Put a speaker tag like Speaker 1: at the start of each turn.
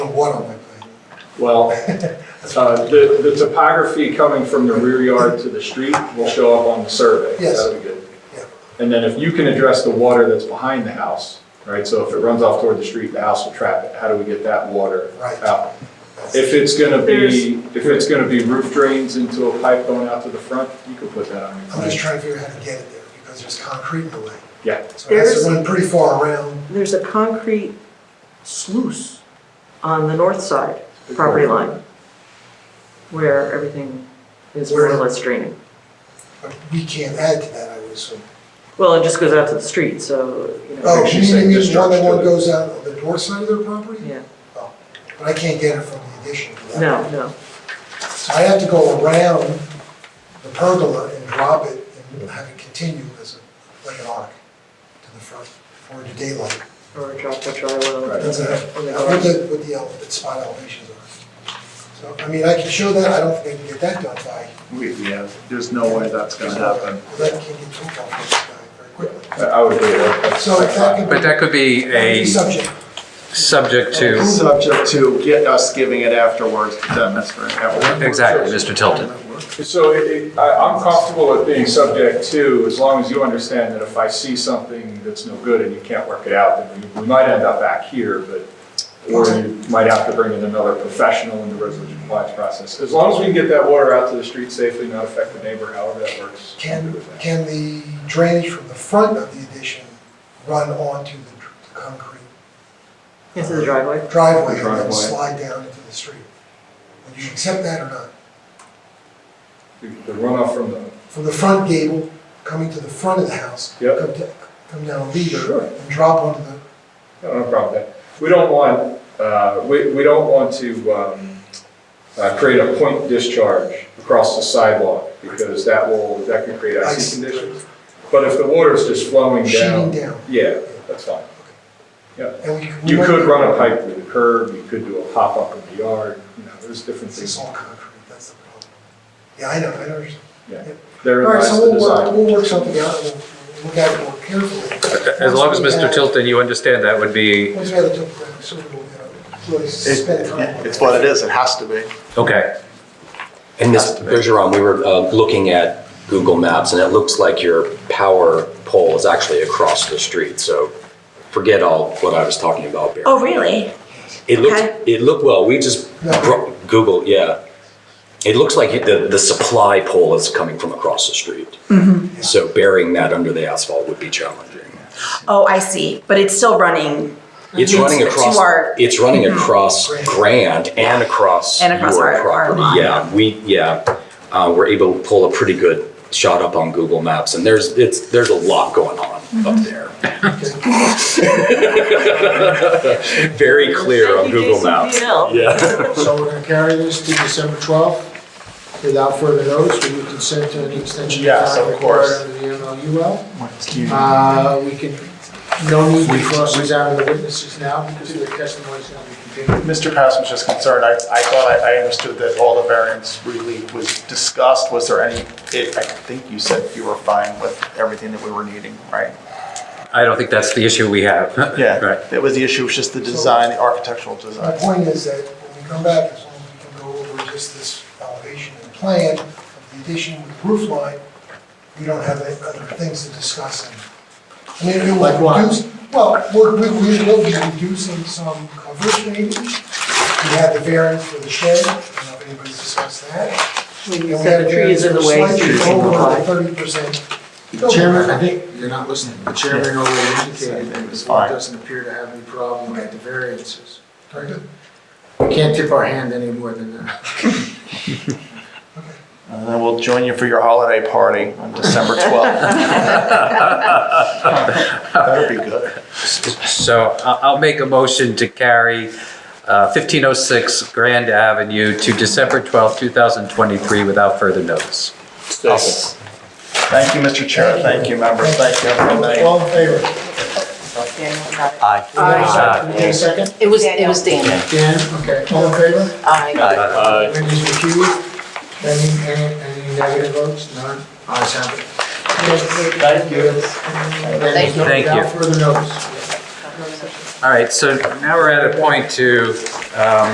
Speaker 1: the water pipeline.
Speaker 2: Well, uh, the, the topography coming from the rear yard to the street will show up on the survey.
Speaker 1: Yes.
Speaker 2: That'll be good.
Speaker 1: Yeah.
Speaker 2: And then if you can address the water that's behind the house, right, so if it runs off toward the street, the house will trap it, how do we get that water
Speaker 1: Right.
Speaker 2: out?
Speaker 1: That's-
Speaker 2: If it's gonna be, if it's gonna be roof drains into a pipe going out to the front, you could put that on your
Speaker 1: I'm just
Speaker 2: plan.
Speaker 1: trying to figure out how to get it there, because there's concrete in the way.
Speaker 2: Yeah,
Speaker 1: So it has
Speaker 3: There's-
Speaker 1: to run pretty far around.
Speaker 3: There's a concrete sluice on the north side property line where everything is more or less draining.
Speaker 1: But we can't add to that, I would assume.
Speaker 3: Well, it just goes out to the street, so, you know,
Speaker 1: Oh,
Speaker 2: she's
Speaker 1: you mean,
Speaker 2: saying
Speaker 1: you mean one that
Speaker 2: destruction.
Speaker 1: one goes out on the north side of their property?
Speaker 3: yeah,
Speaker 1: But I can't get it from the addition to that.
Speaker 3: no, no.
Speaker 1: So I have to go around the pergola and drop it and have it continue as a, like an arc to the front, or to daylight.
Speaker 3: Or drop the drywall.
Speaker 2: Right.
Speaker 1: That's it.
Speaker 3: on the
Speaker 1: What
Speaker 3: ground.
Speaker 1: the, what the ele- spot elevations are. So, I mean, I can show that, I don't think I can get that done by,
Speaker 2: we, yeah, there's no way that's gonna happen.
Speaker 1: that can get too complex uh, very quickly.
Speaker 2: I I would agree with that.
Speaker 1: So if that could be.
Speaker 4: But that could be a
Speaker 1: Subject.
Speaker 4: subject to,
Speaker 5: Subject to get us giving it afterwards to them, that's for afterwards.
Speaker 4: exactly, Mr. Tilton.
Speaker 2: So it- it- I- I'm comfortable with being subject to, as long as you understand that if I see something that's no good and you can't work it out, then we- we might end up back here, but, or you might have to bring in another professional in the resolution compliance process. As long as we can get that water out to the street safely, not affect the neighbor, however that works. I'm
Speaker 1: Can,
Speaker 2: good with that.
Speaker 1: can the drainage from the front of the addition run onto the dr- the concrete
Speaker 3: Into the driveway.
Speaker 1: driveway and then
Speaker 2: Driveway.
Speaker 1: slide down into the street? Would you accept that or not?
Speaker 2: The- The runoff from the,
Speaker 1: From the front gable, coming to the front of the house,
Speaker 2: Yep.
Speaker 1: come, to- come down a
Speaker 2: Sure.
Speaker 1: meter and drop onto the,
Speaker 2: no, no problem with that. We don't want, uh, we we don't want to um, uh, create a point discharge across the sidewalk, because that will, that could create
Speaker 1: Ice.
Speaker 2: icy conditions. But if the water's just flowing
Speaker 1: sheeting
Speaker 2: down,
Speaker 1: down.
Speaker 2: yeah, that's fine.
Speaker 1: And we we
Speaker 2: You
Speaker 1: might-
Speaker 2: could run a pipe through the curb, you could do a pop-up in the yard, you know, there's different
Speaker 1: It's
Speaker 2: things.
Speaker 1: all concrete, that's the problem. Yeah, I know, I understand. All
Speaker 2: There
Speaker 1: right,
Speaker 2: lies
Speaker 1: so
Speaker 2: the
Speaker 1: we'll uh, work,
Speaker 2: design.
Speaker 1: we'll work something out, and we'll we'll look at it more carefully.
Speaker 4: As long as
Speaker 1: Once we
Speaker 4: Mr.
Speaker 1: have-
Speaker 4: Tilton, you understand that would be,
Speaker 1: Once we have the topographic survey, we'll, uh, really spend time. on
Speaker 5: It's
Speaker 1: that.
Speaker 5: what it is, it has to be.
Speaker 4: okay.
Speaker 6: And Ms. Bergeron, we were uh, looking at Google Maps, and it looks like your power pole is actually across the street, so forget all what I was talking about, Barry.
Speaker 7: Oh, really?
Speaker 6: It
Speaker 7: okay.
Speaker 6: looked, it looked, well, we just,
Speaker 1: No.
Speaker 6: bro- Google, yeah. It looks like the, the supply pole is coming from across the street.
Speaker 7: Mm-hmm.
Speaker 6: So burying that under the asphalt would be challenging.
Speaker 7: Oh, I see. But it's still running.
Speaker 6: It's
Speaker 7: Mhm.
Speaker 6: running
Speaker 7: To
Speaker 6: across,
Speaker 7: our- Mhm.
Speaker 6: it's running across Grand and across
Speaker 7: And across our-
Speaker 6: your
Speaker 7: our
Speaker 6: property.
Speaker 7: lot.
Speaker 6: Yeah, we, yeah, uh, we're able to pull a pretty good shot up on Google Maps and there's, it's, there's a lot going on up
Speaker 7: Mhm.
Speaker 6: there. Very clear on Google Maps. Yeah.
Speaker 8: So we're gonna carry this to December 12th without further notice. Will you consent to any extension?
Speaker 5: Yes, of course.
Speaker 8: Under the MLUL. Uh, We can, no need to cross examine the witnesses now because their testimony is going to be continued.
Speaker 5: Mr. Pass was just concerned, I, I thought, I I understood that all the variance really was discussed, was there any, it, I think you said you were fine with everything that we were needing, right?
Speaker 4: I don't think that's the issue we have. Right.
Speaker 5: Yeah, that was the issue, was just the design, the architectural design.
Speaker 1: My point is that when we come back, as long as we can go over just this elevation and plan of the addition with the roof line, we don't have any other things to discuss. And- I mean, it
Speaker 8: Like
Speaker 1: will
Speaker 8: what?
Speaker 1: reduce, well, we're, we we will be reducing some coverage maybe. We have the variance for the shed, I don't know if anybody's discussed that.
Speaker 3: When you said the tree is in the way, so you can
Speaker 1: Over
Speaker 3: comply.
Speaker 1: thirty percent.
Speaker 8: The chairman, I think you're not listening. The chairman already indicated that the board
Speaker 5: fine.
Speaker 8: doesn't appear to have any problem at the variances.
Speaker 1: Very good.
Speaker 8: We can't tip our hand any more than that.
Speaker 5: And then we'll join you for your holiday party on December 12th. That'd be good.
Speaker 4: So I- I'll make a motion to carry uh, 1506 Grand Avenue to December 12th, 2023 without further notice.
Speaker 5: Thank you, Mr. Chair, thank you, members, thank you, everybody.
Speaker 8: All in favor? Can we take a second?
Speaker 9: It was, it was Daniel.
Speaker 8: Dan, okay. All in favor?
Speaker 9: Aye.
Speaker 1: Uh,
Speaker 8: Wendy's recused. Any, any, any negative votes? None? Ayes have it.
Speaker 5: Thank you.
Speaker 8: Thank
Speaker 4: you.
Speaker 8: Without further notice.
Speaker 4: All right, so now we're at a point to Um,